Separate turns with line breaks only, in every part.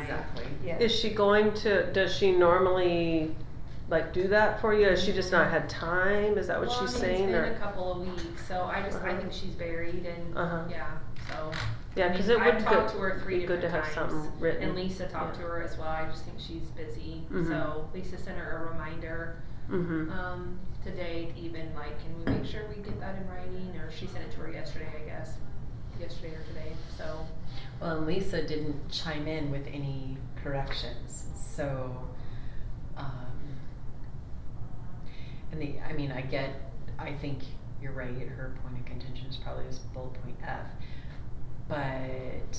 Exactly.
yeah.
Is she going to, does she normally like do that for you? Has she just not had time? Is that what
well,
she's
I mean,
saying?
It's been
or-
a couple of weeks, so I just I
Uh-huh.
think she's buried and
Uh-huh.
yeah. So
Yeah,
I
because
mean,
it would
I've
go-
talked to her three
be good to
different
have
times,
something written.
and Lisa talked to her as well. I just think she's busy.
Mhm.
So Lisa sent her a reminder
Mm-hmm.
um, today, even like, can we make sure we get that in writing? Or she sent it to her yesterday, I guess, yesterday or today. So
Well, and Lisa didn't chime in with any corrections, so, um, and the, I mean, I get, I think you're right, her point of contention is probably this bullet point F, but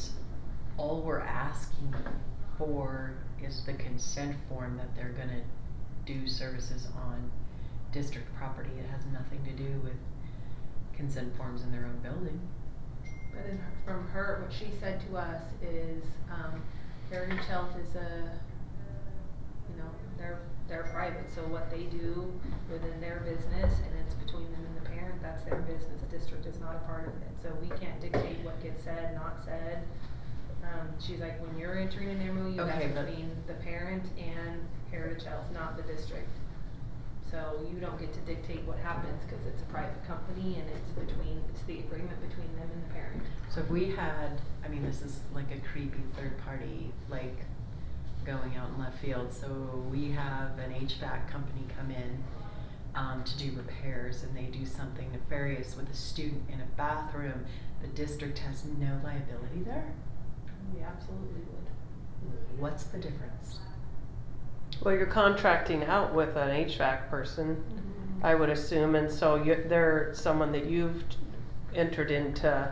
all we're asking for is the consent form that they're gonna do services on district property, it has nothing to do with consent forms in their own building.
But in her, from her, what she said to us is, um, Heritage Health is a, you know, they're, they're private, so what they do within their business, and it's between them and the parent, that's their business, The district is not a part of it, so we can't dictate what gets said, not said. Um, she's like, when you're entering an MOU, that's
Okay, but-
between the parent and Heritage Health, not the district. So you don't get to dictate what happens, cause it's a private company and it's between, it's the agreement between them and the parent.
So if we had, I mean, this is like a creepy third party, like going out in left field. So we have an HVAC company come in um, to do repairs and they do something nefarious with a student in a bathroom. The district has no liability there.
We absolutely would.
What's the difference?
Well, you're contracting out with an HVAC person, I would assume, and so you, they're someone that you've entered into.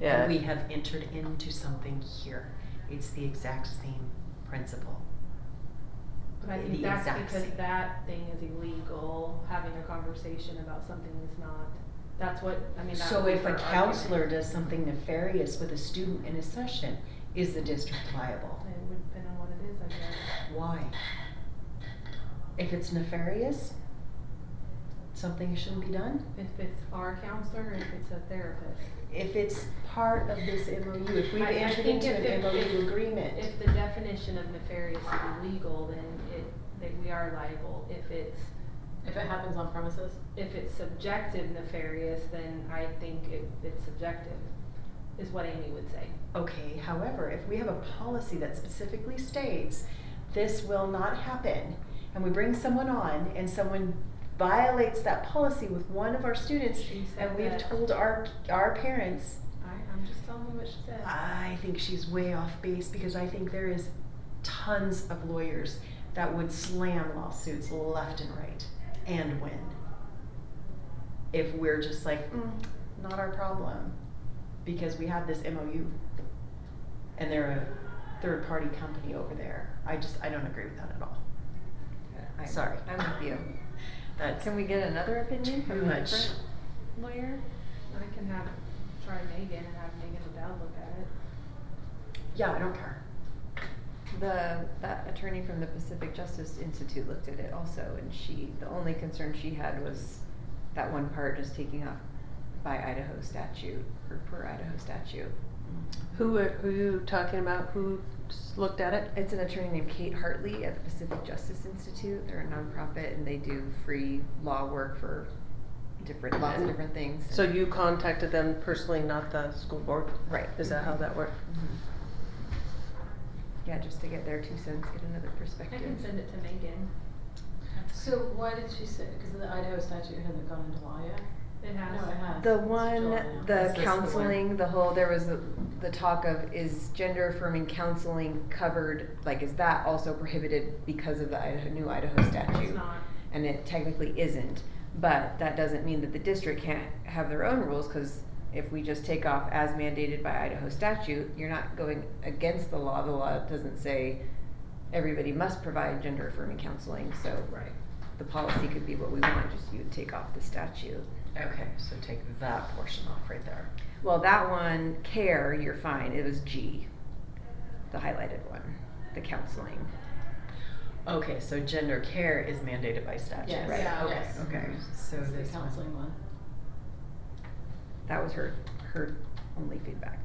Yeah.
We have entered into something here. It's the exact same principle.
But I
The
think that's
exact
because
same.
that thing is illegal, having a conversation about something is not, that's what, I mean, that
So
would be
if
her
a
argument.
counselor does something nefarious with a student in a session, is the district liable?
It would depend on what it is, I guess.
Why? If it's nefarious, something shouldn't be done.
If it's our counselor, or if it's a therapist.
If it's part of this MOU, if we've
I- I
entered
think
into
if
an
it- if-
MOU agreement,
If the definition of nefarious is illegal, then it, that we are liable. If it's,
If it happens on premises,
if it's subjective nefarious, then I think it, it's subjective, is what Amy would say.
okay, however, if we have a policy that specifically states this will not happen, and we bring someone on and someone violates that policy with one of our students,
She said
and we've
that-
told our, our parents,
I, I'm just telling you what she said.
I think she's way off base because I think there is tons of lawyers that would slam lawsuits left and right and win. If we're just like, mm, not our problem, because we have this MOU and they're a third party company over there. I just, I don't agree with that at all.
I-
Sorry.
I'm with you.
That's
Can we get another opinion
too
from a
much.
different lawyer?
I can have, try Megan and have Megan and Dad look at it.
Yeah, I don't care.
The, that attorney from the Pacific Justice Institute looked at it also, and she, the only concern she had was that one part just taking off by Idaho statute, or per Idaho statute.
Who, are- who you talking about? Who s- looked at it?
It's an attorney named Kate Hartley at the Pacific Justice Institute. They're a nonprofit and they do free law work for different, lots of different things.
So you contacted them personally, not the school board?
Right.
Is that how that worked?
Yeah, just to get their two cents, get another
I
perspective.
can send it to Megan.
so why did she say, because the Idaho statute hasn't gone into law yet?
It
No,
has.
it has.
The
It's
one,
still in.
the
Is this the one?
counseling, the whole, there was the, the talk of, is gender affirming counseling covered, like, is that also prohibited because of the Idaho, new Idaho statute?
It's not.
and it technically isn't. But that doesn't mean that the district can't have their own rules, because if we just take off as mandated by Idaho statute, you're not going against the law. The law doesn't say everybody must provide gender affirming counseling, so
Right.
the policy could be what we want, just you take off the statute.
Okay, so take that portion off right there.
Well, that one, care, you're fine, it was G, the highlighted one, the counseling.
Okay, so gender care is mandated by statute.
Yes,
Right,
yeah,
okay,
yes.
okay. So
It's the
this one.
counseling one.
That was her, her only feedback.